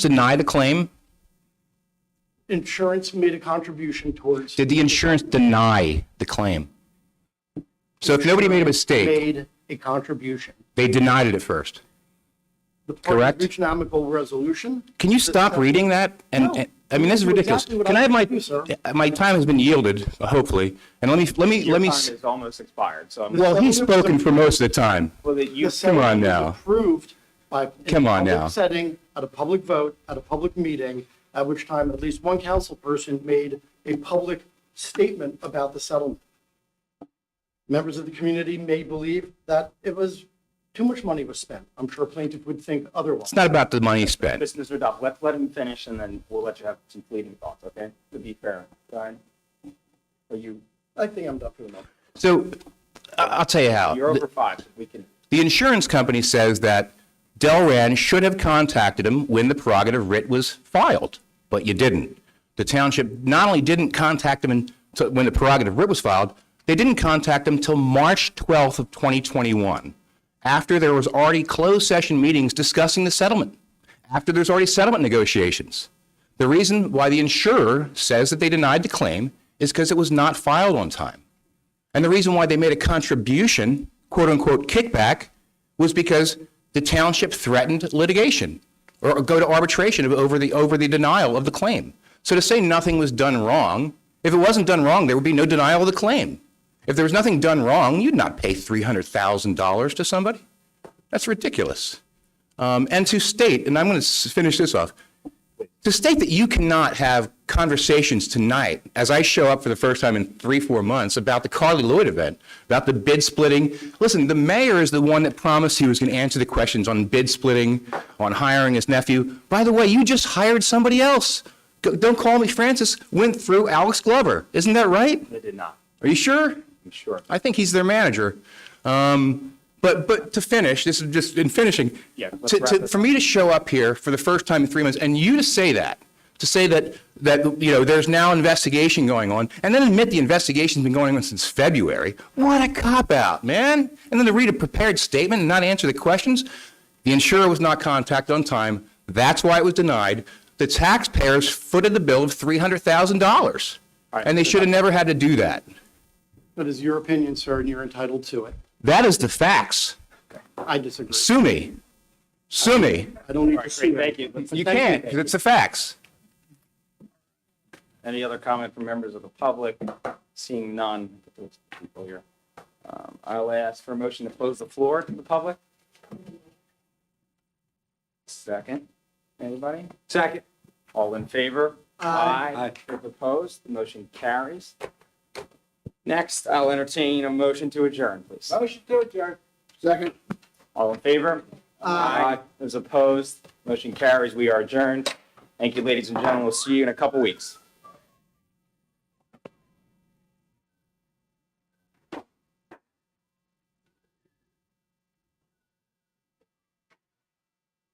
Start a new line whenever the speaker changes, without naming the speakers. deny the claim?
Insurance made a contribution towards.
Did the insurance deny the claim? So if nobody made a mistake,
Made a contribution.
they denied it at first.
The Partners
Correct.
Economical resolution.
Can you stop reading that? And,
No.
and- I mean, this is
You know
ridiculous.
exactly what
Can I
I'm
have my, uh,
gonna do, sir.
my time has been yielded, hopefully, and let me, let me,
Your
let me,
time
s-
is almost expired, so I'm.
well, he's spoken for most of the time.
Well, that you,
The settlement
on
was
now.
Approved by. in a
Come on
public
now.
Setting at a public vote, at a public meeting, at which time at least one council person made a public statement about the settlement. Members of the community may believe that it was, too much money was spent. I'm sure plaintiff would think otherwise.
It's not about the money spent.
Mr. Mr. Duff, let, let him finish and then we'll let you have some fleeting thoughts, okay? To be fair, go ahead. Are you,
I think I'm done for the moment.
So I- I'll tell you how.
you're over five, so we can,
The insurance company says that Delran should have contacted him when the prerogative writ was filed, but you didn't. The township not only didn't contact him until- when the prerogative writ was filed, they didn't contact him till March 12th of 2021, after there was already closed session meetings discussing the settlement, after there's already settlement negotiations. The reason why the insurer says that they denied the claim is because it was not filed on time. And the reason why they made a contribution, quote unquote, kickback, was because the township threatened litigation or go to arbitration over the, over the denial of the claim. So to say nothing was done wrong, if it wasn't done wrong, there would be no denial of the claim. If there was nothing done wrong, you'd not pay $300,000 to somebody. That's ridiculous. Um, and to state, and I'm going to finish this off, to state that you cannot have conversations tonight, as I show up for the first time in three, four months, about the Carly Lloyd event, about the bid splitting. Listen, the mayor is the one that promised he was going to answer the questions on bid splitting, on hiring his nephew. By the way, you just hired somebody else. Go- Don't call me Francis, went through Alex Glover. Isn't that right?
they did not,
Are you sure?
I'm sure.
I think he's their manager. Um, but but to finish, this is just in finishing.
Yeah, let's
To,
wrap
to,
this
for me to show up here for the first time in three months, and you to say that, to say that that you know there's now investigation going on, and then admit the investigation's been going on since February. What a cop out, man! And then to read a prepared statement and not answer the questions. The insurer was not contacted on time. That's why it was denied. The taxpayers footed the bill of three hundred thousand dollars,
right,
and they should have never had to do that.
That is your opinion, sir, and you're entitled to it.
That is the facts.
I disagree.
Sue me. Sue me.
I don't need to see
Great,
that.
thank you. Let's-
You can't, because it's the facts.
Any other comment from members of the public? Seeing none, there's people here. Um, I'll ask for a motion to close the floor to the public. Second, anybody? Second. All in favor? Aye. Those Opposed, the motion carries. Next, I'll entertain a motion to adjourn, please.
Motion to adjourn. Second.
All in favor? Aye. Those opposed, motion carries. We are adjourned. Thank you, ladies and gentlemen. We'll see you in a couple weeks.